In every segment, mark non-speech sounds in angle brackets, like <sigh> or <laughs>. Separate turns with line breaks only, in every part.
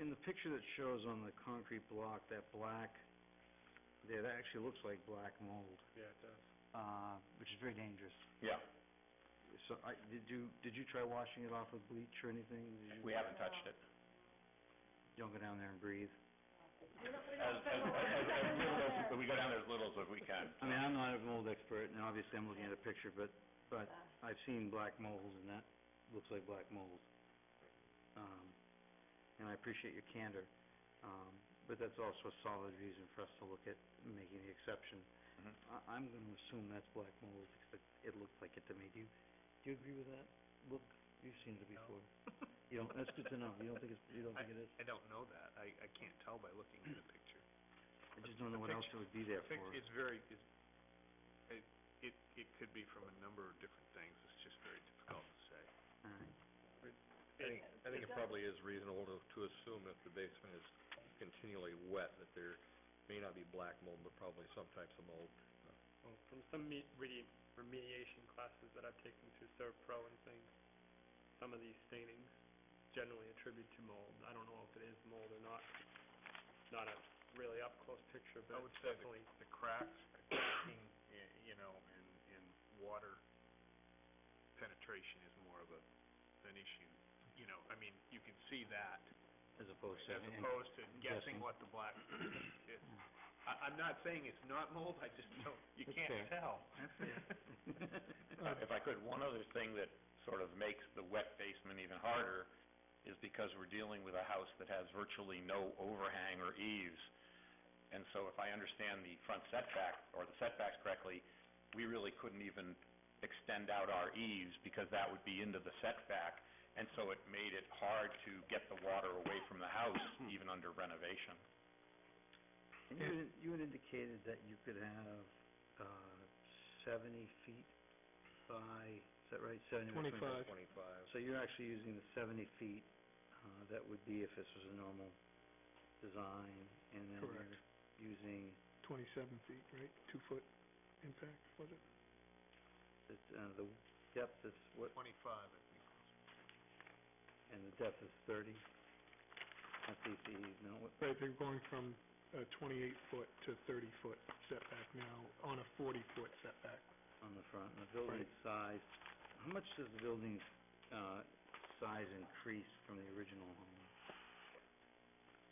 in the picture that shows on the concrete block, that black, there, that actually looks like black mold,
Yeah, it does.
uh, which is very dangerous.
Yeah,
So I, did you, did you try washing it off with bleach or anything? Did you-
we haven't touched it.
Don't go down there and breathe.
As, as, as, as little as, we go down there as little as we can.
I mean, I'm not a mold expert, and obviously I'm looking at a picture, but, but I've seen black mold, and that looks like black mold. Um, and I appreciate your candor, um, but that's also a solid reason for us to look at making the exception.
Mhm.
I, I'm gonna assume that's black mold, because it, it looked like it to me. Do you, do you agree with that? Look, you've seen it
No.
before. You don't, that's good to know. You don't think it's, you don't think it is?
I don't know that. I, I can't tell by looking at the picture.
I just don't know what else it would be
The
there for.
pic- It's very, it's, it, it, it could be from a number of different things. It's just very difficult to say.
All right.
I think, I think it probably is reasonable to, to assume if the basement is continually wet, that there may not be black mold, but probably some types of mold.
Well, from some me- redi- remediation classes that I've taken through Serpro and things, some of these stainings generally attribute to mold. I don't know if it is mold or not, not a really up-close picture,
I
but
would
it's
say the-
definitely,
The cracks, cracking, y- you know, and, and water penetration is more of a, an issue. You know, I mean, you can see that
As opposed to.
as opposed to guessing
guessing.
what the black is.
<clears throat>
I, I'm not saying it's not mold, I just don't, you
That's
can't
fair.
tell. <laughs>
<laughs>
Uh, If I could, one other thing that sort of makes the wet basement even harder is because we're dealing with a house that has virtually no overhang or eaves. And so if I understand the front setback, or the setbacks correctly, we really couldn't even extend out our eaves because that would be into the setback. And so it made it hard to get the water away from the house, even under renovation.
And You had, you had indicated that you could have, uh, seventy feet by, is that right, seventy? by
Twenty-five.
So you're actually using the seventy feet, uh, that would be if this was a normal design, and then
Correct.
you're using,
Twenty-seven feet, right? Two-foot impact, was it?
the- uh, the depth is what,
Twenty-five, I think.
and the depth is thirty? That's easy, no, what,
Right, they're going from a twenty-eight foot to thirty foot setback now, on a forty foot setback.
on the front, and the building size, how much does the building's, uh, size increase from the original home?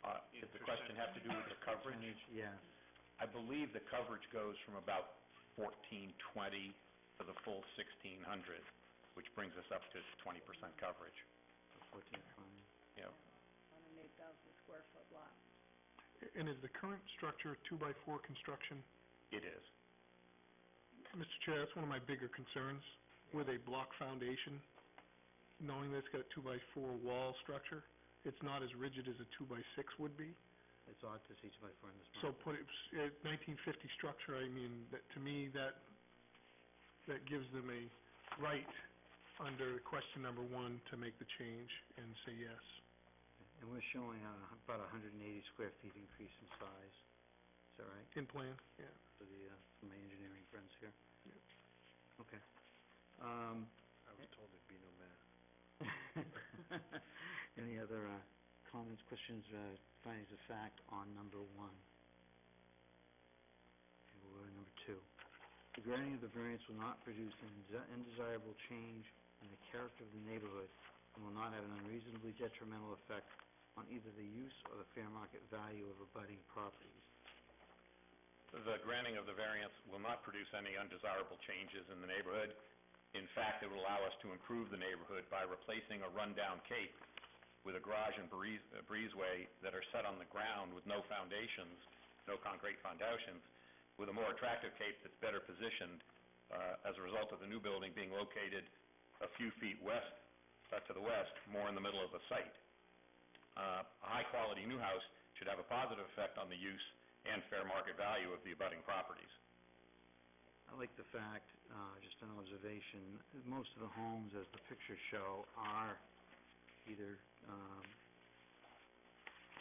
Uh, did the question have to do with the coverage?
Yeah.
I believe the coverage goes from about fourteen twenty to the full sixteen hundred, which brings us up to twenty percent coverage,
Fourteen five.
you know.
And is the current structure two-by-four construction?
It is.
Mr. Chair, that's one of my bigger concerns, with a block foundation, knowing that it's got a two-by-four wall structure, it's not as rigid as a two-by-six would be.
It's odd to see two by four in this
So
model.
Mm-hmm.
put it, s- uh, nineteen fifty structure, I mean, that, to me, that, that gives them a right under question number one to make the change and say yes.
And we're showing uh, about hundred and eighty square feet increase in size. Is that right?
In plan, yeah.
For the, uh, for my engineering friends here? Okay. Um,
I was told there'd be no math.
<laughs> any other, uh, comments, questions, uh, findings of fact on number one? Or number two. The granting of the variance will not produce an desi- undesirable change in the character of the neighborhood and will not have an unreasonably detrimental effect on either the use or the fair market value of abutting properties.
The granting of the variance will not produce any undesirable changes in the neighborhood. In fact, it will allow us to improve the neighborhood by replacing a rundown cape with a garage and breeze- uh, breezeway that are set on the ground with no foundations, no concrete foundations, with a more attractive cape that's better positioned, uh, as a result of the new building being located a few feet west, uh, to the west, more in the middle of the site. Uh, A high-quality new house should have a positive effect on the use and fair market value of the abutting properties.
I like the fact, uh, just an observation, that most of the homes, as the pictures show, are either, um,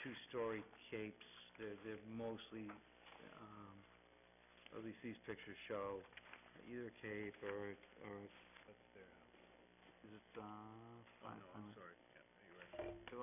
two-story capes, they're, they're mostly, um, at least these pictures show, either a cape or, or,
That's their house.
is it, uh,
Oh,
fi-
no,
fi-
I'm sorry. Yeah, you're right.